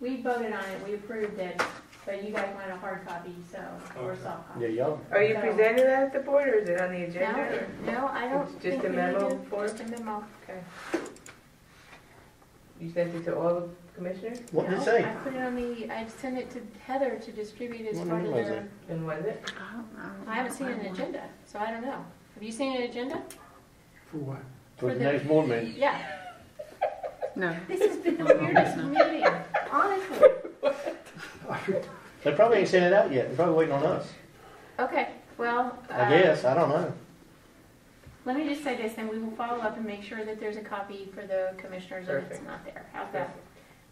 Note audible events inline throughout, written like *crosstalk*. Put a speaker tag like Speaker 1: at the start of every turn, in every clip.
Speaker 1: we voted on it, we approved it, but you guys want a hard copy, so, or
Speaker 2: Okay.
Speaker 1: soft
Speaker 3: Yeah,
Speaker 1: copy.
Speaker 3: y'all,
Speaker 4: Are you
Speaker 1: No.
Speaker 4: presenting that at the board or is it on the
Speaker 1: No,
Speaker 4: agenda? or-
Speaker 1: no, I
Speaker 4: It's
Speaker 1: don't
Speaker 4: just
Speaker 1: think
Speaker 4: a
Speaker 1: we need
Speaker 4: memo
Speaker 1: to,
Speaker 4: for-
Speaker 1: just a memo.
Speaker 4: You sent it to all the commissioners?
Speaker 3: what did it
Speaker 1: No,
Speaker 3: say?
Speaker 1: I put it on the, I sent it to Heather to distribute as
Speaker 3: What
Speaker 1: part of
Speaker 3: memo is
Speaker 1: their,
Speaker 3: it?
Speaker 4: And was it?
Speaker 1: I haven't seen an agenda, so I don't know. Have you seen an agenda?
Speaker 2: For what?
Speaker 3: For the
Speaker 1: the-
Speaker 3: next board meeting,
Speaker 1: Yeah,
Speaker 5: No.
Speaker 1: this has been the weirdest meeting, honestly.
Speaker 3: they probably ain't sent it out yet, they're probably waiting on us,
Speaker 1: Okay, well.
Speaker 3: I
Speaker 1: uh,
Speaker 3: guess, I don't know.
Speaker 1: Let me just say this, and we will follow up and make sure that there's a copy for the commissioners if it's not there. How's that?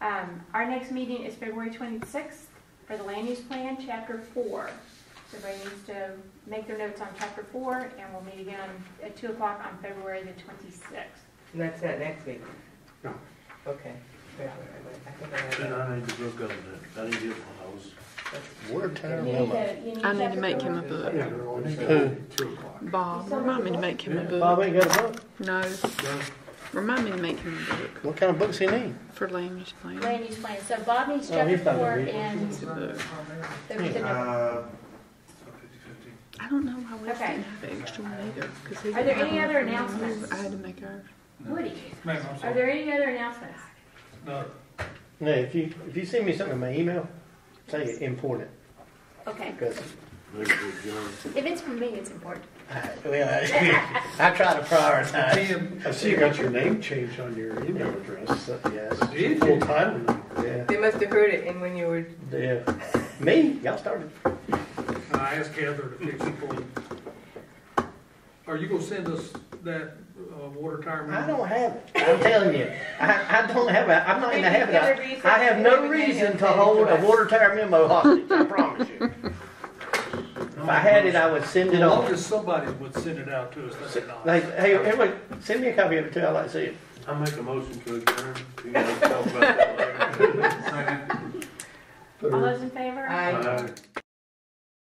Speaker 1: Um, our next meeting is February twenty-sixth for the land use plan, chapter four. So Everybody needs to make their notes on chapter four, and we'll meet again on- at two o'clock on February the twenty-sixth.
Speaker 4: And that's not next week?
Speaker 2: No.
Speaker 4: Okay. Wait, wait, wait, I think I have
Speaker 6: Then
Speaker 4: that.
Speaker 6: I need to look up that, I didn't get one of those.
Speaker 3: We're tired
Speaker 1: You
Speaker 3: of
Speaker 1: need to-
Speaker 3: memo.
Speaker 1: you
Speaker 5: I need
Speaker 1: chapter
Speaker 5: to make
Speaker 1: four.
Speaker 5: him a book.
Speaker 2: Yeah, they're on
Speaker 3: Who?
Speaker 2: two o'clock.
Speaker 5: Bob, remind me to make him a
Speaker 3: Bob
Speaker 5: book.
Speaker 3: ain't got a book,
Speaker 5: No,
Speaker 2: No.
Speaker 5: remind me to make him a book
Speaker 3: what kind of books he need?
Speaker 5: for land use plan.
Speaker 1: Land use plan, so Bob needs
Speaker 3: Oh,
Speaker 1: chapter
Speaker 3: he's not gonna
Speaker 1: four
Speaker 3: read it.
Speaker 1: and
Speaker 5: It's a book.
Speaker 1: the, the,
Speaker 6: Uh, fifty, fifty.
Speaker 5: I don't know why we
Speaker 1: Okay.
Speaker 5: didn't have an extra one either. 'cause he
Speaker 1: Are there
Speaker 5: didn't
Speaker 1: any
Speaker 5: have
Speaker 1: other
Speaker 5: one for me.
Speaker 1: announcements?
Speaker 5: I had to make ours.
Speaker 1: Woody,
Speaker 2: Ma'am, I'm
Speaker 1: are
Speaker 2: sorry.
Speaker 1: there any other announcements?
Speaker 7: Uh,
Speaker 2: No,
Speaker 3: No, if you, if you send me something in my email, say it important,
Speaker 1: Okay,
Speaker 3: because,
Speaker 6: Maybe we'll go.
Speaker 1: if it's from me, it's important.
Speaker 3: well, *laughs* I try to prioritize.
Speaker 2: Tim, I see you got your name changed on your email address.
Speaker 3: So, Yes,
Speaker 2: Did you?
Speaker 3: full time, yeah,
Speaker 4: They must have heard it and when you were,
Speaker 3: yeah, me, y'all started.
Speaker 7: I asked Heather to fix it for me. Are you gonna send us that uh, water tower?
Speaker 3: I
Speaker 7: map?
Speaker 3: don't have it. I'm telling you, I, I don't have it. I'm not in the habit. of- I have no reason to hold a water tower memo hostage. *laughs* I promise you. If I had it, I would send
Speaker 7: As
Speaker 3: it
Speaker 7: long
Speaker 3: on.
Speaker 7: as somebody would send it out to us, that's
Speaker 3: Like,
Speaker 7: nice.
Speaker 3: hey, everybody, send me a copy of it too. I would like to see it.
Speaker 6: I make a motion to adjourn. You guys talk about that later.